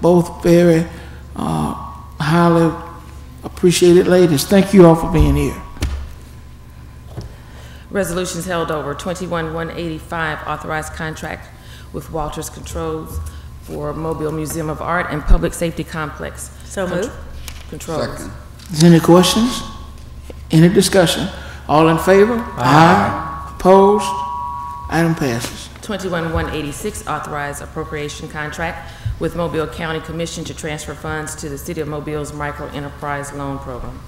both very uh, highly appreciated ladies. Thank you all for being here. Resolutions held over, 21-185, authorized contract with Walters Controls for Mobile Museum of Art and Public Safety Complex. So moved. Controls. Is there any questions? Any discussion? All in favor? Aye. Opposed? Item passes. 21-186, authorized appropriation contract with Mobile County Commission to transfer funds to the City of Mobile's microenterprise loan program.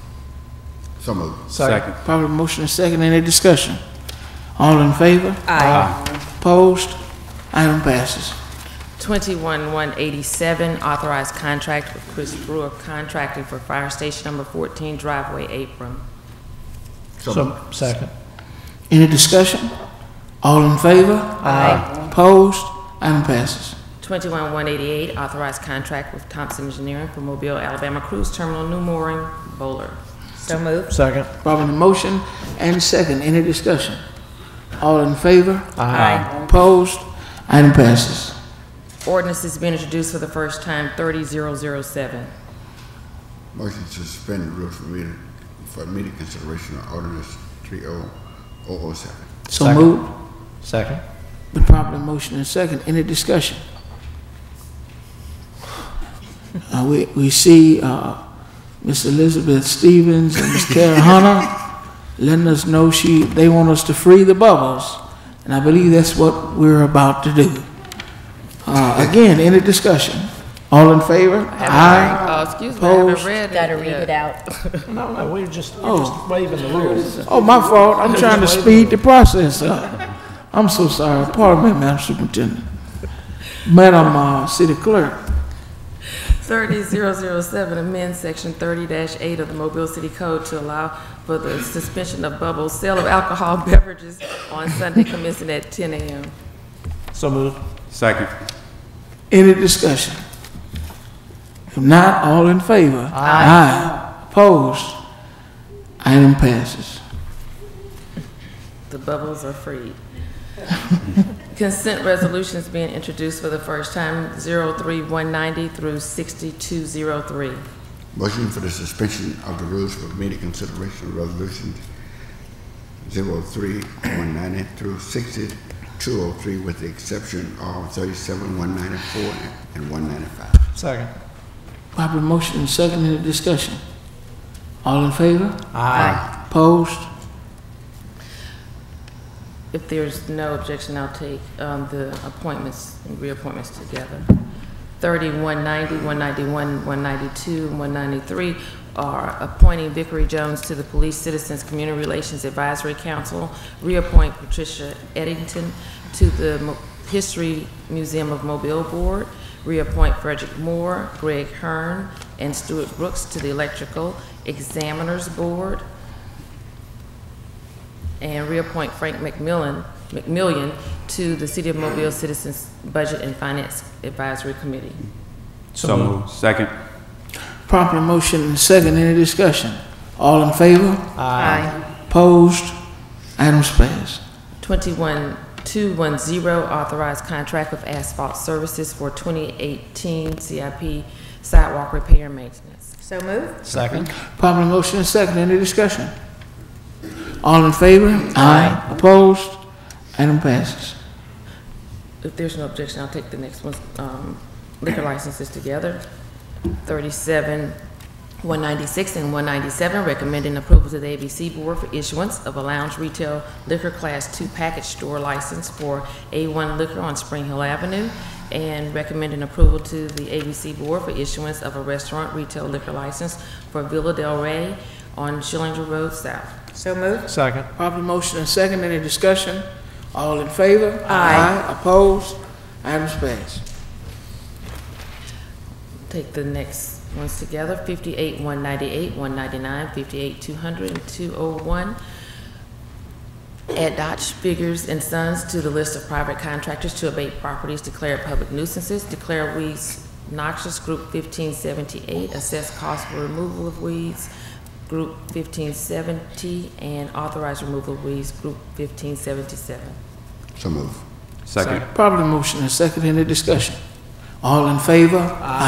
So moved. Second. Probably motion and second, any discussion? All in favor? Aye. Opposed? Item passes. 21-187, authorized contract with Chris Brewer Contracting for Fire Station Number 14 driveway apron. So, second. Any discussion? All in favor? Aye. Opposed? Item passes. 21-188, authorized contract with Thompson Engineering for Mobile, Alabama Cruise Terminal, New Mooring, Bowler. So moved. Second. Probably motion and second, any discussion? All in favor? Aye. Opposed? Item passes. Ordinance has been introduced for the first time, 30007. Motion to suspend the rules for immediate, for immediate consideration of ordinance oh, 30007. So Second. moved. Second. Been properly motion and second, any discussion? Uh, we, we see, uh, Miss Elizabeth Stevens and Miss Karen Hunter letting us know she, they want us to free the bubbles, and I believe that's what we're about to do. Uh, again, any discussion? All in favor? Aye. Oh, excuse me, I haven't Opposed? read it. Got to read yet. it out. No, no, we're just, we're Oh. just waiving the rules. Oh, my fault, I'm trying to speed the process up. I'm so sorry, pardon me, Madam Superintendent. Madam, uh, City Clerk. 30007, amend Section 30-8 of the Mobile City Code to allow for the suspension of bubbles, sale of alcohol beverages on Sunday commencing at 10 a.m. So moved. Second. Any discussion? If not, all in favor? Aye. Opposed? Item passes. The bubbles are freed. Consent resolutions being introduced for the first time, 03190 through 6203. Motion for the suspension of the rules for immediate consideration of resolutions 03190 through 6203 with the exception of 37, 194, and 195. Second. Proper motion and second in the discussion. All in favor? Aye. Opposed? If there's no objection, I'll take um, the appointments and reappointments together. 3190, 191, 192, and 193 are appointing Vickery Jones to the Police Citizens Community Relations Advisory Council, reappoint Patricia Eddington to the Mo- History Museum of Mobile Board, reappoint Frederick Moore, Greg Hearn, and Stuart Brooks to the Electrical Examiners Board, and reappoint Frank McMillan, McMillian to the City of Mobile Citizens Budget and Finance Advisory Committee. So moved. Second. Proper motion and second in the discussion. All in favor? Aye. Opposed? Items passed. 21210, authorized contract with Asphalt Services for 2018 CIP sidewalk repair and maintenance. So moved. Second. Proper motion and second in the discussion. All in favor? Aye. Opposed? Item passes. If there's no objection, I'll take the next one, um, liquor licenses together. 37, 196 and 197, recommending approval to the ABC Board for issuance of a lounge retail liquor Class 2 package store license for A1 Liquor on Spring Hill Avenue, and recommending approval to the ABC Board for issuance of a restaurant retail liquor license for Villa Del Rey on Schillinger Road South. So moved. Second. Proper motion and second, any discussion? All in favor? Aye. Opposed? Items passed. Take the next ones together, 58, 198, 199, 58, 200, and 201. Add Dodge Figures and Sons to the list of private contractors to abate properties declared public nuisances, declare weeds noxious, Group 1578, assess cost for removal of weeds, Group 1570, and authorize removal of weeds, Group 1577. So moved. Second. Proper motion and second, any discussion? All in favor? Aye.